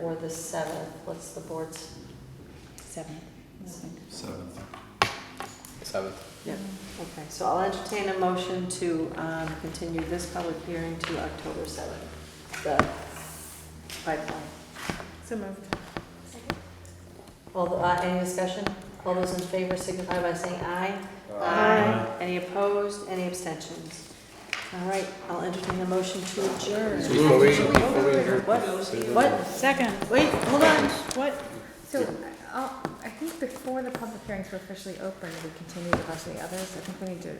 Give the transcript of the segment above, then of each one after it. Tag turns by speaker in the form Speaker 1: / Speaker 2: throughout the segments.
Speaker 1: or the seventh, what's the board's?
Speaker 2: Seven.
Speaker 3: Seventh.
Speaker 4: Seventh.
Speaker 1: Yep. Okay, so I'll entertain a motion to um, continue this public hearing to October 7th, the pipeline.
Speaker 2: So moved.
Speaker 1: All, the- uh, any discussion? All those in favor signify by saying aye. Any opposed, any abstentions? All right, I'll entertain a motion to adjourn.
Speaker 4: So before we- before we adjourn-
Speaker 1: What? What?
Speaker 2: Second,
Speaker 1: Wait, hold on.
Speaker 2: what?
Speaker 5: So, uh, I think before the public hearings were officially open, we continued the rest of the others, I think we need to,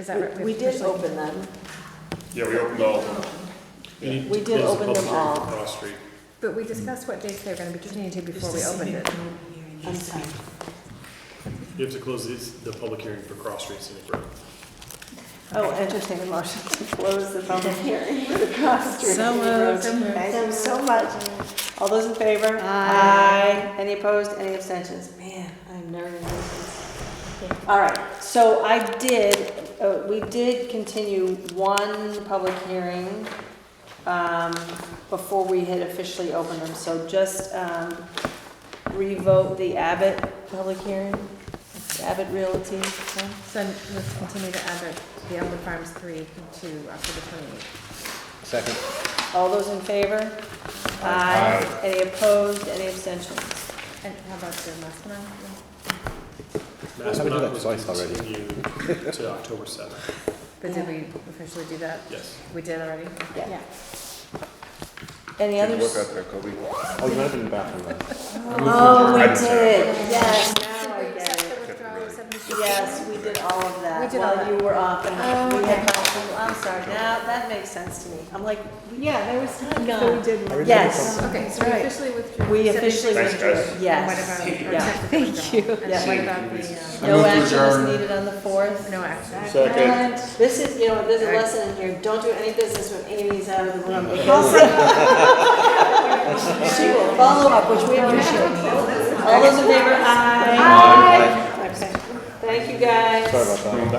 Speaker 5: is that right?
Speaker 1: We- We did open them.
Speaker 6: Yeah, we opened all of them.
Speaker 1: We did open them all.
Speaker 6: Cross Street.
Speaker 5: But we discussed what dates they were gonna be continued to before we opened it.
Speaker 1: I'm sorry.
Speaker 6: You have to close this, the public hearing for Cross Street Scenic Road.
Speaker 1: Oh, entertain a motion to close the public hearing for the Cross Street.
Speaker 2: So moved.
Speaker 1: Thank you so much. All those in favor? Aye. Any opposed, any abstentions? Man, I'm nervous. All right, so I did, uh, we did continue one public hearing um, before we had officially opened them, so just um, revote the Abbott public hearing, Abbott Realty. one?
Speaker 5: So let's continue to add the- the Elmwood Farms three to October twenty-eighth.
Speaker 4: Second.
Speaker 1: All those in favor? Aye. Any opposed, any abstentions?
Speaker 5: And how about the last one?
Speaker 4: Haven't done that
Speaker 6: Maspinock was
Speaker 4: twice already.
Speaker 6: continued to October 7th,
Speaker 5: But did we officially do that?
Speaker 6: yes.
Speaker 5: We did already?
Speaker 1: Yeah. Any others?
Speaker 4: there, Kobe. Oh, you might have been in the bathroom then.
Speaker 1: Oh, we did, yes,
Speaker 5: Did
Speaker 1: now
Speaker 5: we
Speaker 1: I
Speaker 5: accept
Speaker 1: get it.
Speaker 5: the withdrawal of 76?
Speaker 1: Yes, we did all of that
Speaker 5: We did all
Speaker 1: while
Speaker 5: that.
Speaker 1: you were off. and
Speaker 5: Oh,
Speaker 1: We
Speaker 5: okay.
Speaker 1: had, council- I'm sorry, now that makes sense to me. I'm like,
Speaker 2: Yeah, there was time,
Speaker 1: so we
Speaker 2: did.
Speaker 1: yes,
Speaker 5: Okay, so we
Speaker 1: Right.
Speaker 5: officially withdrew.
Speaker 1: we
Speaker 5: 76.
Speaker 1: officially
Speaker 6: Thanks,
Speaker 1: withdrew,
Speaker 6: guys.
Speaker 5: And
Speaker 1: yes.
Speaker 5: what about- or
Speaker 1: Yeah.
Speaker 5: accept the withdrawal? And
Speaker 1: Yeah.
Speaker 5: what about the,
Speaker 3: I
Speaker 1: No
Speaker 3: move to
Speaker 1: action was
Speaker 3: adjourn.
Speaker 1: needed on the
Speaker 5: uh,
Speaker 1: fourth.
Speaker 5: no action?
Speaker 1: This is, you know, there's a
Speaker 5: Alright.
Speaker 1: lesson in here, don't do any business when Amy's out of the room. because She will follow up, which we appreciate. All those in favor, aye. Okay. Thank you, guys.
Speaker 4: Sorry about that.